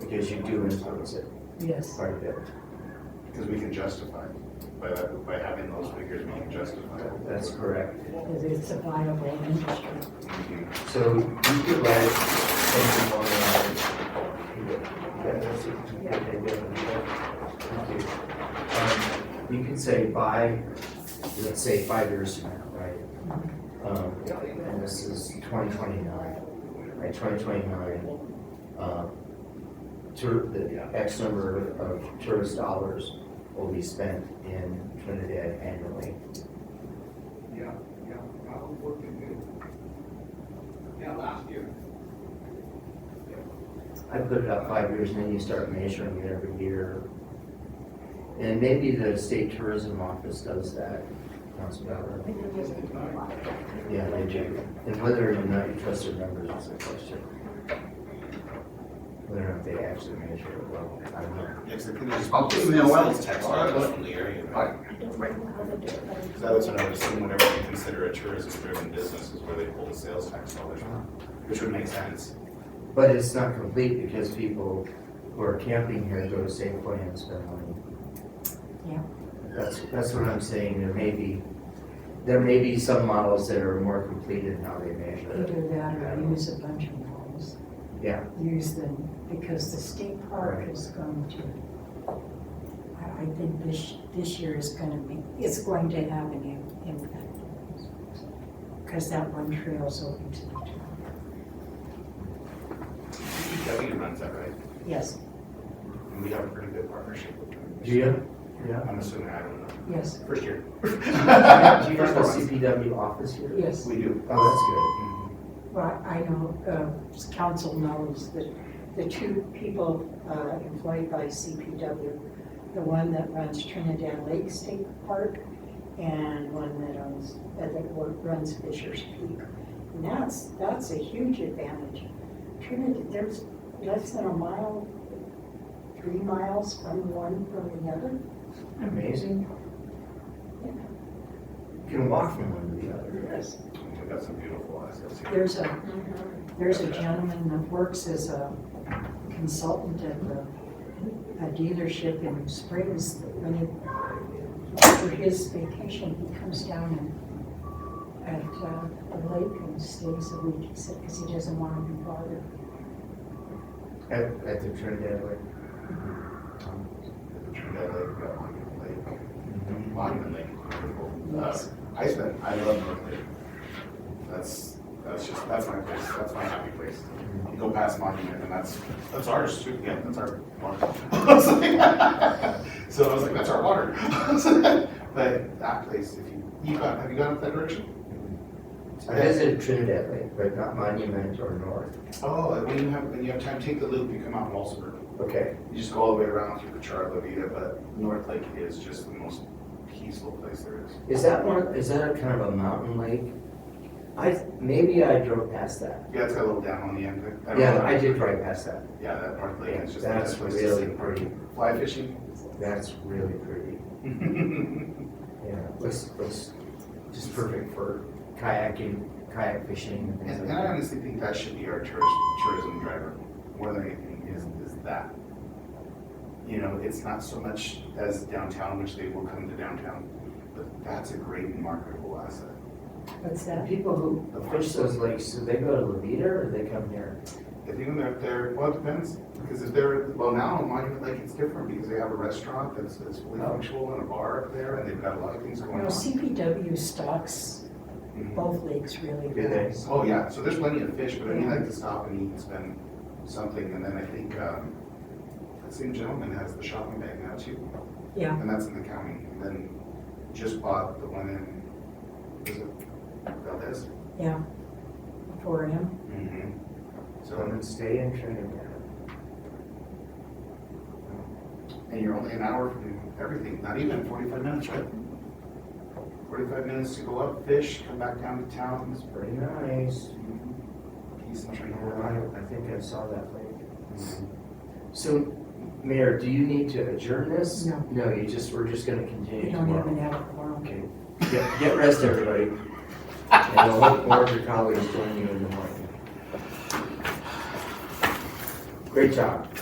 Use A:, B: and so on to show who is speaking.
A: because you do influence it
B: Yes.
A: quite a bit.
C: Because we can justify, it. by, that- by having those figures, we can justify. it.
A: That's correct.
B: Because it's a viable industry.
C: Mhm.
A: So you could write something on the Um, You can say by, let's say five years from now, right? Um, And this is twenty twenty-nine, right, twenty twenty-nine. Tour, the X number of tourist dollars will be spent in Trinidad annually.
D: Yeah, yeah, I was working good. Yeah, last year.
A: I put it out five years and then you start measuring it every year. And maybe the state tourism office does that, Council Ballard. Yeah, they do. And whether or not you trust their numbers is a question. Whether or not they actually measure it well, I don't know.
C: Yeah, 'cause I think there's-
E: I'll give you a well.
C: Tax dollars from the area, right? Because that's what I was saying, whenever you consider a tourism-driven business is where they pull the sales tax dollars from, which would make sense.
A: But it's not complete because people who are camping here go to Save Point and spend money.
B: Yeah.
A: That's, that's what I'm saying, there may be, there may be some models that are more complete in how they measure it.
B: Either that or use a bunch of models.
A: Yeah.
B: Use them, because the state park
A: Right.
B: is going to, I, I think this, this year is gonna make, it's going to have an im- impact. Because that one trail is open to the town.
C: DPW runs that, right?
B: Yes,
C: And we have a pretty good partnership with them.
A: Do you? Yeah.
C: I'm assuming, I don't know,
B: yes,
C: first year.
A: Do you have a CPW office here?
B: yes.
C: We do.
A: Oh,
C: mm,
B: Well, I know, uh, council knows that the two people uh, employed by CPW, the one that runs Trinidad Lake State Park and one that owns, uh, that wo- runs Fisher's Peak. And that's, that's a huge advantage. Trinidad, there's less than a mile, three miles from one from the other.
A: that's good. Amazing. You can walk from one to the other.
B: Yes.
C: We've got some beautiful assets here.
B: There's a, there's a gentleman that works as a consultant at the, a dealership in Springs. that When he, for his vacation, he comes down and, at uh, the lake and stays a week, because he doesn't want to be bothered.
A: At, at the Trinidad Lake.
C: Trinidad Lake, uh, Monument Lake,
A: Mhm.
C: Monument Lake is beautiful. Uh,
B: Yes.
C: I spent, I love North Lake. That's, that's just, that's my place, that's my happy place. You go past Monument and that's, that's ours too, yeah, that's our water. I was like- So I was like, that's our water. But that place, if you, you got, have you gone up that direction?
A: I visited Trinidad Lake, but not Monument or North.
C: Oh, and when you have, when you have time, take the loop, you come out Walsenburg.
A: Okay.
C: You just go all the way around through the Charla Vida, but North Lake is just the most peaceful place there is.
A: Is that one, is that a kind of a mountain lake? I, maybe I drove past that.
C: Yeah, it's got a little dam on the end. of it. don't
A: Yeah,
C: know.
A: I did drive past that.
C: Yeah, that North Lake is just. the
A: That's
C: best place to
A: really
C: see.
A: pretty.
C: Fly fishing.
A: That's really pretty. Yeah, looks, looks just perfect for kayaking, kayak fishing and things
C: And
A: like
C: and I
A: that.
C: honestly think that should be our tourist, tourism driver, more than anything, is, is that. You know, it's not so much as downtown, which they will come to downtown, but that's a great marketable asset.
B: What's that?
A: People who fish those lakes, do they go to Levita or they come here?
C: If even they're, they're, well, it depends, because if they're, well, now Monument Lake, it's different, because they have a restaurant that's, that's fully
A: Oh.
C: functional and a bar up there, and they've got a lot of things
B: You
C: going
B: know,
C: on.
B: CPW stocks
C: Mhm.
B: both lakes really
A: Do they?
B: well.
C: Oh, yeah, so there's plenty of fish, but I mean, like to stop and eat and spend something, and then I think, um, that same gentleman has the shopping bag now too,
B: Yeah,
C: and that's in the county, and then just bought the one in, is it Valdez?
B: yeah. For him,
C: Mm-hmm.
A: So I'm
C: So,
A: gonna stay in Trinidad.
C: and you're only an hour from everything, not even forty-five minutes, right? Forty-five minutes to go up, fish, come back down to town, it's
A: It's pretty nice.
C: peace and tranquility.
A: I I think I saw that lake. So, Mayor, do you need to adjourn this?
B: No.
A: No, you just, we're just gonna
B: we
A: continue
B: don't
A: tomorrow.
B: even have a forum.
A: Okay, get, get rest, everybody. And I hope more of your colleagues join you in the morning. Great job.